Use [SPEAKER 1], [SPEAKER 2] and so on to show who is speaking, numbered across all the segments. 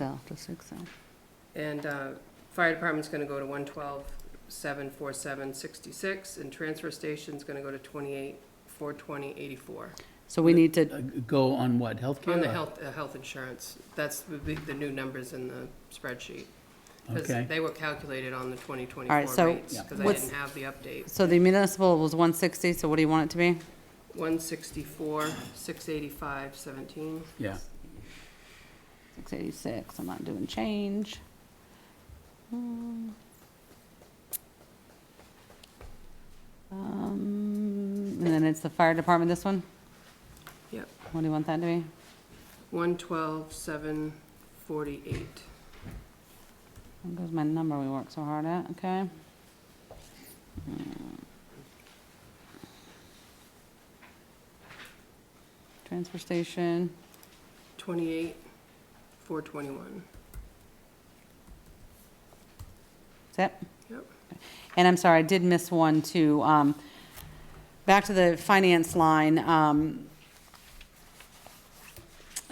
[SPEAKER 1] L to six L.
[SPEAKER 2] And uh, fire department's gonna go to one twelve, seven, four, seven, sixty-six, and transfer station's gonna go to twenty-eight, four, twenty, eighty-four.
[SPEAKER 1] So we need to,
[SPEAKER 3] Uh, Go on what, healthcare?
[SPEAKER 2] On the
[SPEAKER 3] or-
[SPEAKER 2] health, uh, health insurance, that's the, big- the new numbers in the spreadsheet. Because
[SPEAKER 3] Okay.
[SPEAKER 2] they were calculated on the twenty
[SPEAKER 1] All right,
[SPEAKER 2] twenty-four
[SPEAKER 1] so
[SPEAKER 2] rates,
[SPEAKER 3] Yeah.
[SPEAKER 2] because I
[SPEAKER 1] what's-
[SPEAKER 2] didn't have the update.
[SPEAKER 1] so the municipal was one sixty, so what do you want it to be?
[SPEAKER 2] One sixty-four, six eighty-five, seventeen.
[SPEAKER 3] Yeah,
[SPEAKER 1] Six eighty-six, I'm not doing change. Hmm. Um, and then it's the fire department, this one?
[SPEAKER 2] Yep.
[SPEAKER 1] What do you want that to be?
[SPEAKER 2] One twelve, seven, forty-eight.
[SPEAKER 1] There goes my number we worked so hard at, okay? Transfer station,
[SPEAKER 2] Twenty-eight, four twenty-one.
[SPEAKER 1] Yep.
[SPEAKER 2] Yep.
[SPEAKER 1] And I'm sorry, I did miss one too. Um, back to the finance line, um,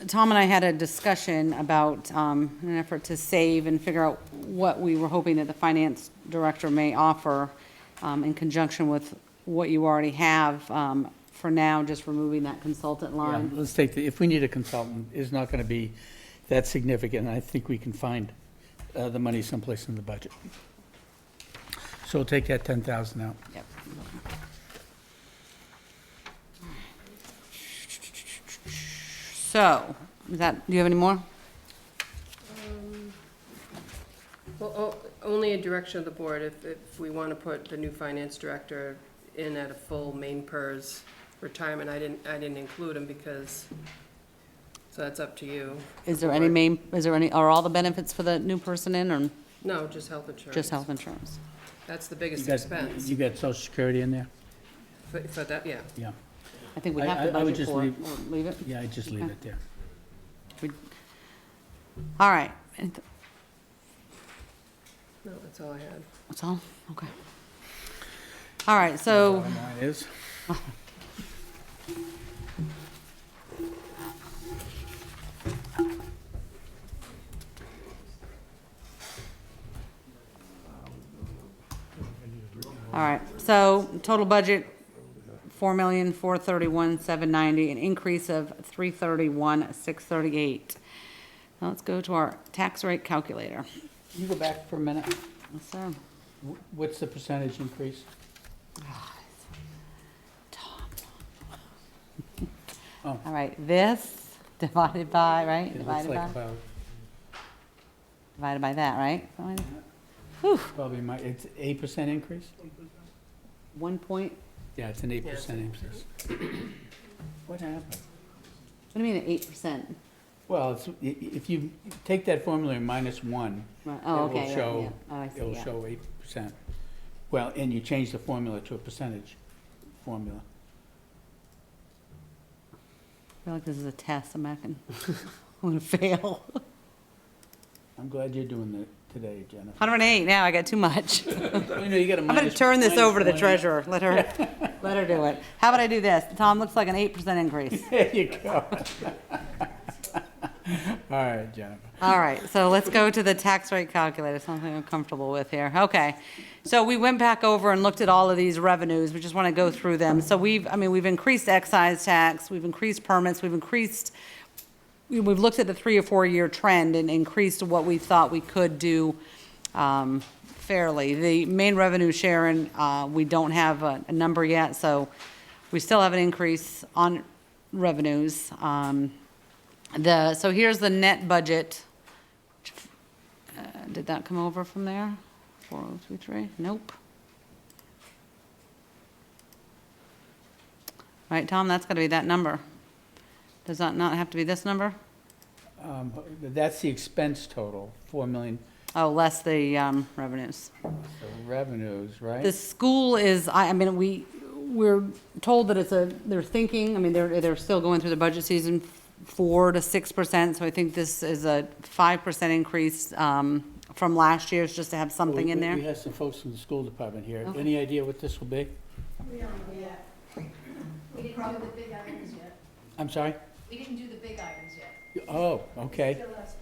[SPEAKER 1] Tom and I had a discussion about, um, an effort to save and figure out what we were hoping that the finance director may offer, um, in conjunction with what you already have, um, for now, just removing that consultant
[SPEAKER 3] Yeah,
[SPEAKER 1] line.
[SPEAKER 3] Um, let's take, the if we need a consultant, it's not going to be that significant. I think we can find uh, the money someplace in the budget. So we'll take that 10,000 out.
[SPEAKER 1] Yep. So, is that, do you have any more?
[SPEAKER 2] Um, Well, o- only a direction of the board, if, if we want to put the new finance director in at a full main PERS retirement, I didn't, I didn't include him because, so that's up to you.
[SPEAKER 1] Is there any main, is there any, are all the benefits for the new person in or
[SPEAKER 2] No, just health insurance.
[SPEAKER 1] just health insurance?
[SPEAKER 2] That's the
[SPEAKER 3] You
[SPEAKER 2] biggest
[SPEAKER 3] got-
[SPEAKER 2] expense,
[SPEAKER 3] You got social security in there?
[SPEAKER 2] for, for that, yeah.
[SPEAKER 3] Yeah,
[SPEAKER 1] I think we
[SPEAKER 3] I-
[SPEAKER 1] have to
[SPEAKER 3] I- I would
[SPEAKER 1] budget
[SPEAKER 3] just
[SPEAKER 1] for it,
[SPEAKER 3] leave-
[SPEAKER 1] Or leave it.
[SPEAKER 3] yeah, I just leave
[SPEAKER 1] Okay.
[SPEAKER 3] it there.
[SPEAKER 1] We- All right, And th-
[SPEAKER 2] No, that's all I had.
[SPEAKER 1] that's all, okay. All right, so,
[SPEAKER 3] Bottom line is,
[SPEAKER 1] all right, so total budget, four million, four thirty-one, seven ninety, an increase of three thirty-one, six thirty-eight. Now let's go to our tax rate calculator.
[SPEAKER 3] Can you go back for a minute?
[SPEAKER 1] Yes, sir.
[SPEAKER 3] Wh- What's the percentage increase? Oh.
[SPEAKER 1] All right, this divided by, right?
[SPEAKER 3] It looks
[SPEAKER 1] Divided
[SPEAKER 3] like
[SPEAKER 1] by,
[SPEAKER 3] about,
[SPEAKER 1] divided by that, right? Something like-
[SPEAKER 3] probably my, it's 8% increase?
[SPEAKER 1] One point,
[SPEAKER 3] Yeah, it's an 8%
[SPEAKER 2] it's an
[SPEAKER 3] increase. What happened?
[SPEAKER 1] what do you mean, eight percent?
[SPEAKER 3] Well, it's- i- i- if you take that formula and minus one,
[SPEAKER 1] Oh,
[SPEAKER 3] It will
[SPEAKER 1] okay, yeah,
[SPEAKER 3] show-
[SPEAKER 1] yeah. Oh, I see,
[SPEAKER 3] it'll
[SPEAKER 1] yeah.
[SPEAKER 3] show eight percent. Well, and you change the formula to a percentage formula.
[SPEAKER 1] I feel like this is a test, I'm not gonna, I'm gonna fail.
[SPEAKER 3] I'm glad you're doing that today, Jennifer.
[SPEAKER 1] Hundred and eight, now I got too much.
[SPEAKER 3] You know, you got a
[SPEAKER 1] I'm gonna
[SPEAKER 3] minus-
[SPEAKER 1] turn this
[SPEAKER 3] minus
[SPEAKER 1] over to the
[SPEAKER 3] one.
[SPEAKER 1] treasurer, let her, let her do it. How about I do this? Tom, looks like an eight percent increase.
[SPEAKER 3] There you go. All right, Jennifer.
[SPEAKER 1] All right, so let's go to the tax rate calculator, something I'm comfortable with here. Okay. So we went back over and looked at all of these revenues. We just want to go through them. So we've, I mean, we've increased excise tax, we've increased permits, we've increased, we- we've looked at the three or four-year trend and increased what we thought we could do um, fairly. The main revenue, Sharon, uh, we don't have a a number yet, so we still have an increase on revenues. Um, The, so here's the net budget. Uh, Did that come over from there? 4023? Nope. Right, Tom, that's got to be that number. Does that not have to be this number?
[SPEAKER 3] Um, That's the expense total, four million,
[SPEAKER 1] Oh, less the um, revenues.
[SPEAKER 3] the revenues,
[SPEAKER 1] The
[SPEAKER 3] right?
[SPEAKER 1] school is, I, I mean, we, we're told that it's a, they're thinking, I mean, they're, they're still going through the budget season, four to six percent, so I think this is a five percent increase um, from last year's, just to have something in
[SPEAKER 3] We- we-
[SPEAKER 1] there.
[SPEAKER 3] We have some folks from the school department here.
[SPEAKER 1] Okay.
[SPEAKER 3] Any idea what this will be?
[SPEAKER 4] We don't know yet.
[SPEAKER 5] We didn't do the big items yet.
[SPEAKER 3] I'm sorry?
[SPEAKER 5] We didn't do the big items yet.
[SPEAKER 3] Oh, okay.
[SPEAKER 4] Still has